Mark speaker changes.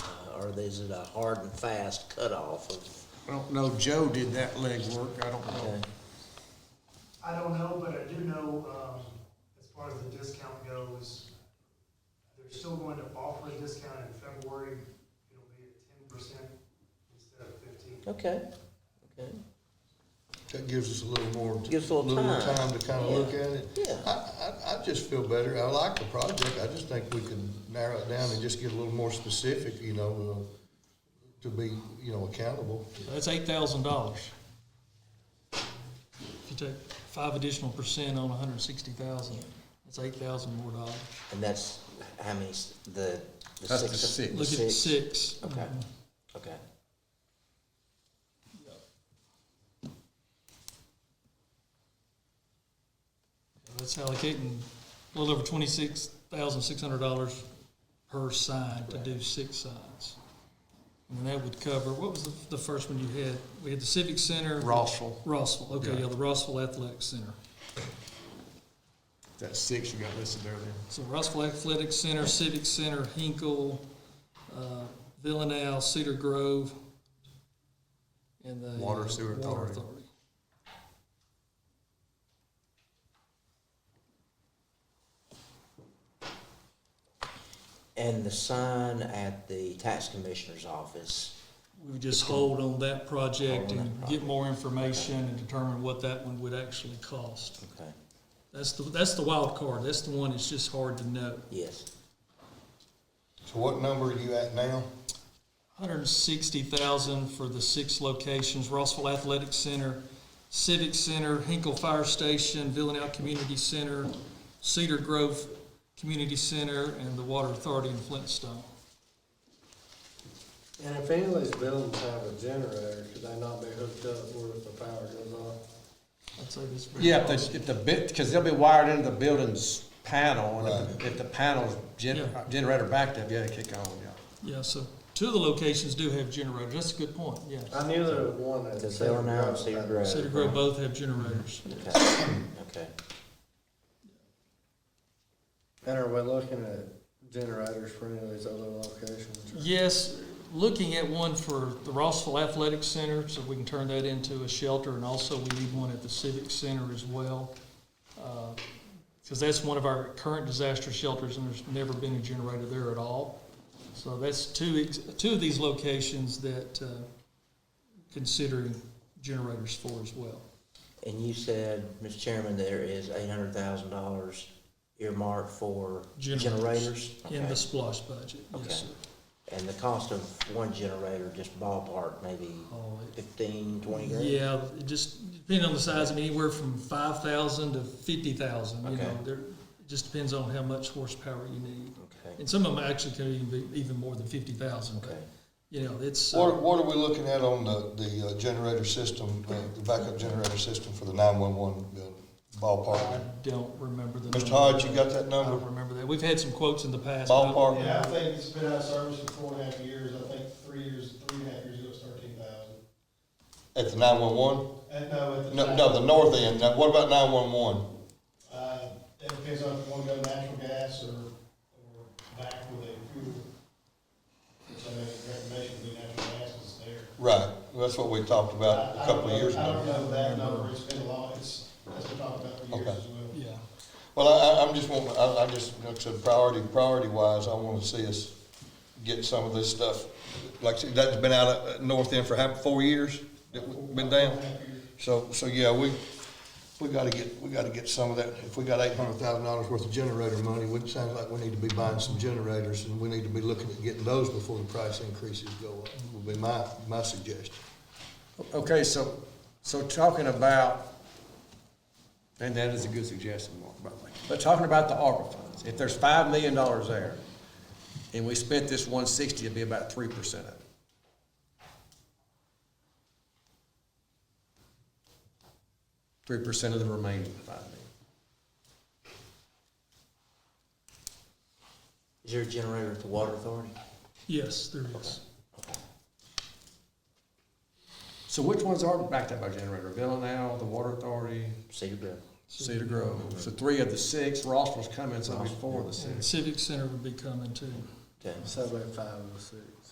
Speaker 1: uh, or is it a hard and fast cutoff of?
Speaker 2: I don't know, Joe did that legwork, I don't know.
Speaker 3: I don't know, but I do know, um, as far as the discount goes, they're still going to offer a discount in February. It'll be at ten percent instead of fifteen.
Speaker 1: Okay, okay,
Speaker 4: That gives us a little more.
Speaker 1: Gives a little time.
Speaker 4: to kind of look at it.
Speaker 1: Yeah.
Speaker 4: I, I, I just feel better. I like the project. I just think we can narrow it down and just get a little more specific, you know, uh, to be, you know, accountable.
Speaker 5: That's eight thousand dollars. If you take five additional percent on a hundred and sixty thousand, that's eight thousand more dollars.
Speaker 1: and that's how many, s- the? the
Speaker 2: That's the
Speaker 1: of-
Speaker 2: six.
Speaker 5: Look at six.
Speaker 1: Okay, okay.
Speaker 5: That's allocating a little over twenty-six thousand six hundred dollars per sign to do six signs. And then that would cover, what was the, the first one you had? We had the Civic Center.
Speaker 2: Rossville,
Speaker 5: Rossville, okay,
Speaker 2: Yeah.
Speaker 5: yeah, the Rossville Athletic Center.
Speaker 2: that's six you got listed there then.
Speaker 5: So Rossville Athletic Center, Civic Center, Hinkle, uh, Villanelle, Cedar Grove, and the.
Speaker 2: Water Sewer
Speaker 5: Water
Speaker 2: Authority.
Speaker 1: And the sign at the tax commissioner's office,
Speaker 5: We would just hold on that
Speaker 1: Hold
Speaker 5: project
Speaker 1: on that
Speaker 5: and get
Speaker 1: project.
Speaker 5: more information and determine what that one would actually cost.
Speaker 1: okay,
Speaker 5: That's the, that's the wild card. That's the one that's just hard to know.
Speaker 1: yes,
Speaker 4: So what number are you at now?
Speaker 5: Hundred and sixty thousand for the six locations, Rossville Athletic Center, Civic Center, Hinkle Fire Station, Villanelle Community Center, Cedar Grove Community Center, and the Water Authority in Flintstone.
Speaker 6: And if any of those buildings have a generator, could they not be hooked up where if the power goes off?
Speaker 5: I'd say this.
Speaker 7: Yeah, if the, if the bit, because they'll be wired into the building's panel, and if, the- if the panel's gen,
Speaker 5: Yeah.
Speaker 7: generator backed up, yeah, they kick on, yeah.
Speaker 5: Yeah, so two of the locations do have generators. That's a good point, yeah.
Speaker 6: I knew there was one at.
Speaker 1: because they are now in Cedar Grove.
Speaker 5: Cedar Grove both have generators.
Speaker 1: Okay, okay.
Speaker 6: And are we looking at generators for any of these other locations?
Speaker 5: Yes, looking at one for the Rossville Athletic Center, so we can turn that into a shelter, and also we need one at the Civic Center as well. Because that's one of our current disaster shelters, and there's never been a generator there at all. So that's two, ex- two of these locations that uh, considering generators for as well.
Speaker 1: And you said, Mr. Chairman, there is eight hundred thousand dollars earmarked for
Speaker 5: Generators.
Speaker 1: generators?
Speaker 5: In
Speaker 1: Okay.
Speaker 5: the splosh budget,
Speaker 1: Okay.
Speaker 5: yes, sir.
Speaker 1: And the cost of one generator, just ballpark, maybe
Speaker 5: Oh, it-
Speaker 1: fifteen, twenty grand?
Speaker 5: Yeah, it just depending on the size, I mean, anywhere from five thousand to fifty thousand, you know,
Speaker 1: Okay.
Speaker 5: there, it just depends on how much horsepower you need.
Speaker 1: Okay,
Speaker 5: And some of them actually can even be even more than fifty thousand,
Speaker 1: okay.
Speaker 5: but, you know, it's, uh,
Speaker 4: What, what are we looking at on the, the uh, generator system, uh, the backup generator system for the nine-one-one building
Speaker 5: I
Speaker 4: ballpark?
Speaker 5: don't remember the.
Speaker 4: Mr.
Speaker 5: number.
Speaker 4: Hodge, you got that
Speaker 5: I don't
Speaker 4: number?
Speaker 5: remember that. We've had some quotes in the past. but I don't-
Speaker 4: Ballpark?
Speaker 8: Yeah, I think it's been out of service for four and a half years, I think three years, three and a half years ago, it was thirteen thousand.
Speaker 4: At the nine-one-one?
Speaker 8: And no, at the
Speaker 4: No,
Speaker 8: time.
Speaker 4: no, the north end. Now, what about nine-one-one?
Speaker 8: Uh, it depends on if you wanna go natural gas or, or back with a fuel. Which I think the recommendation would be natural gas is there.
Speaker 4: Right, that's what we talked about
Speaker 8: I-
Speaker 4: a
Speaker 8: I
Speaker 4: couple
Speaker 8: don't
Speaker 4: of years
Speaker 8: know- I don't
Speaker 4: ago.
Speaker 8: know that number, it's been a lot, it's, that's been talked about for years
Speaker 4: Okay.
Speaker 8: as well.
Speaker 5: Yeah,
Speaker 4: Well, I, I- I'm just wanting, I, I just, like I said, priority, priority wise, I wanna see us get some of this stuff. Like, I said, that's been out at North End for how, four years, that we've been down? So, so, yeah, we, we gotta get, we gotta get some of that. If we got eight hundred thousand dollars worth of generator money, it sounds like we need to be buying some generators, and we need to be looking at getting those before the price increases go up, would be my, my suggestion.
Speaker 7: Okay, so, so talking about, and that is a good suggestion, Mark, by the way, but talking about the ARPA funds, if there's five million dollars there, and we spent this one sixty, it'd be about three percent of it. Three percent of the remaining five million.
Speaker 1: Is there a generator at the water authority?
Speaker 5: yes, there is.
Speaker 7: So which ones are backed up by generator? Villanelle, the Water Authority,
Speaker 1: Cedar Grove.
Speaker 7: Cedar Grove. So three of the six, Rossville's coming, so it'll be four of the
Speaker 5: And
Speaker 7: six.
Speaker 5: Civic Center would be coming too.
Speaker 1: Okay.
Speaker 6: So about five or six.